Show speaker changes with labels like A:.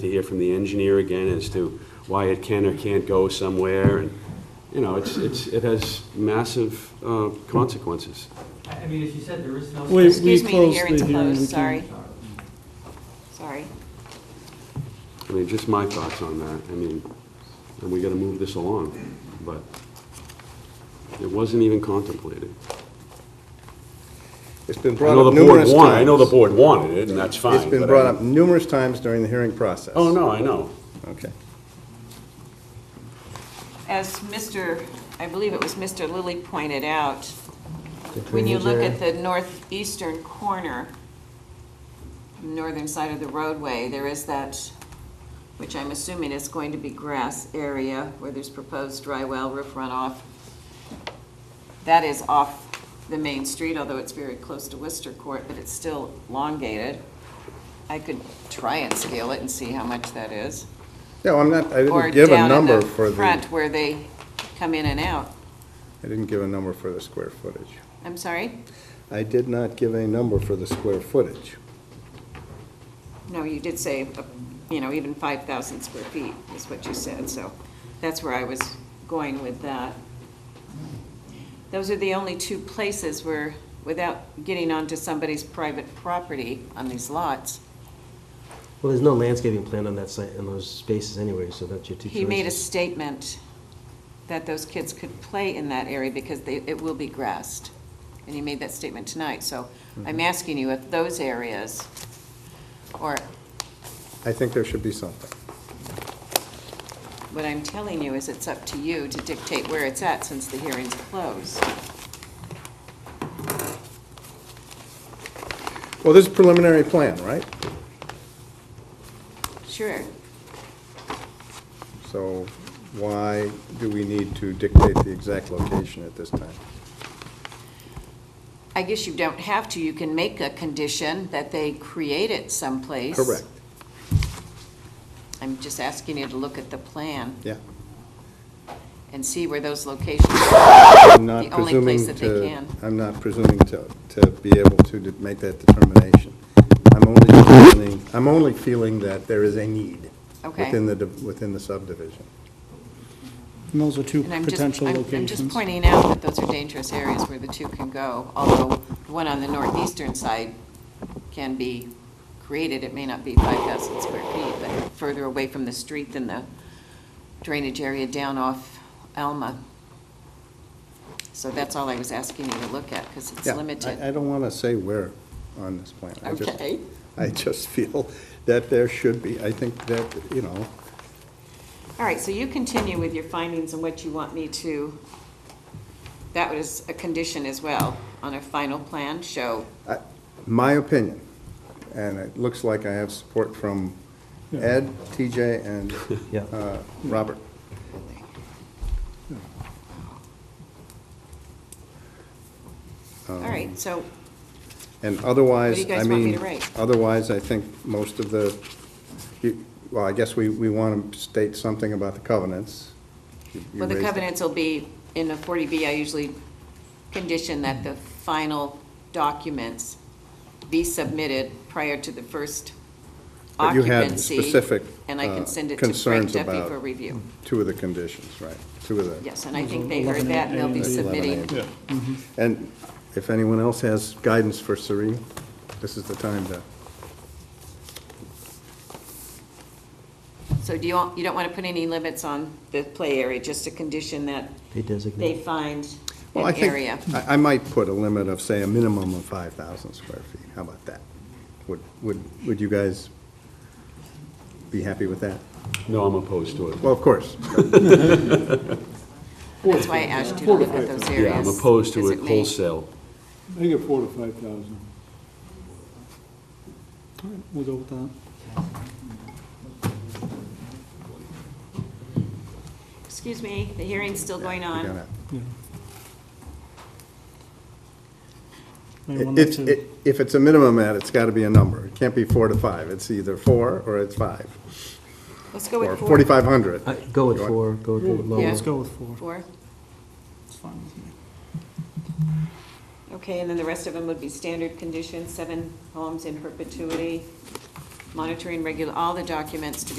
A: to hear from the engineer again as to why it can or can't go somewhere, and, you know, it's, it's, it has massive uh, consequences.
B: I I mean, as you said, there is no.
C: Wait.
B: Sorry.
C: We
D: Excuse me, the
C: closed
D: hearing's
C: the hearing, okay.
D: closed, sorry, sorry.
A: I mean, just my thoughts on that, I mean, and we gotta move this along, but it wasn't even contemplated.
E: It's been
A: I
E: brought
A: know
E: up
A: the board
E: numerous times.
A: wanted, I know the board wanted it, and that's fine.
E: It's been
A: but I
E: brought
A: mean-
E: up numerous times during the hearing process.
A: Oh, no, I know.
E: Okay.
D: As Mr., I believe it was Mr. Lilly pointed out, when you look at the northeastern corner, northern side of the roadway, there is that, which I'm assuming is going to be grass area where there's proposed dry well roof runoff. That is off the main street, although it's very close to Worcester Court, but it's still elongated. I could try and scale it and see how much that is.
E: No, I'm not, I
D: Or
E: didn't give a
D: down in
E: number for the, I
D: Front where they come in and out.
E: didn't give a number for the square footage.
D: I'm sorry?
E: I did not give a number for the square footage.
D: No, you did say, uh, you know, even 5,000 square feet is what you said, so that's where I was going with that. Those are the only two places where, without getting onto somebody's private property on these lots,
F: Well, there's no landscaping plan on that site, in those spaces anyway, so that's your two choices.
D: he made a statement that those kids could play in that area because they, it will be grassed. And he made that statement tonight, so
E: Mm-hmm.
D: I'm asking you if those areas, or
E: I think there should be something.
D: What I'm telling you is it's up to you to dictate where it's at since the hearing's closed.
E: Well, this is preliminary plan, right?
D: Sure.
E: So why do we need to dictate the exact location at this time?
D: I guess you don't have to. You can make a condition that they create it someplace.
E: Correct,
D: I'm just asking you to look at the plan
E: yeah.
D: and see where those locations
E: I'm not
D: The only place
E: presuming
D: that they
E: to,
D: can.
E: I'm not presuming to, to be able to de- make that determination. I'm only feeling, I'm only feeling that there is a need
D: Okay.
E: within the, div- within the subdivision.
C: And those are two
D: And I'm just-
C: potential
D: I'm- I'm just
C: locations.
D: pointing out that those are dangerous areas where the two can go, although the one on the northeastern side can be created, it may not be 5,000 square feet, but further away from the street than the drainage area down off Alma. So that's all I was asking you to look at, because it's
E: Yeah, I- I
D: limited.
E: don't want to say where on this plan. I just-
D: Okay.
E: I just feel that there should be, I think that, you know,
D: All right, so you continue with your findings and what you want me to, that was a condition as well, on a final plan, show
E: I- my opinion, and it looks like I have support from Ed, TJ, and
F: Yeah.
E: uh, Robert. Hmm.
D: All
E: Um,
D: right, so
E: And
D: What
E: otherwise,
D: do you
E: I
D: guys want me
E: mean,
D: to write?
E: otherwise, I think most of the, you- well, I guess we, we want to state something about the covenants. You- you
D: Well, the
E: raised it.
D: covenants will be, in a 40B, I usually condition that the final documents be submitted prior to the first
E: But you had
D: occupancy.
E: specific,
D: And I
E: uh,
D: can send it to Frank
E: concerns
D: Duffy
E: about-
D: for review.
E: Two of the conditions, right, two of the.
D: Yes, and I think they heard that, and they'll be
C: 11A.
E: E
D: submitting.
E: 11A. And if anyone else has guidance for Serene, this is the time to,
D: So do you, want- you don't want to put any limits on the play area, just a condition that
F: They
D: they
F: designate.
D: find
E: well, I
D: an
E: think,
D: area.
E: I, I might put a limit of, say, a minimum of 5,000 square feet. How about that? Would, would, would you guys be happy with that?
A: No, I'm opposed to it.
E: Well, of course.
D: That's why I asked you to look at those areas.
A: Yeah, I'm opposed to
D: because
A: it
D: may-
A: wholesale.
C: They get four to five thousand. All right, we'll go with that.
D: Excuse me, the hearing's still going
E: We're
D: on.
E: gonna-
C: Yeah. May want
E: It's,
C: to-
E: it- if it's a minimum ad, it's got to be a number. It can't be four to five. It's either four or it's five.
D: Let's go
E: Or
D: with four.
E: 4,500.
F: Uh, Go with
E: You want-
F: four, go with the
C: Well,
F: lower.
C: Let's go with four.
D: Four?
C: It's fine with me.
D: Okay, and then the rest of them would be standard conditions, seven homes in perpetuity, monitoring regular, all the documents to be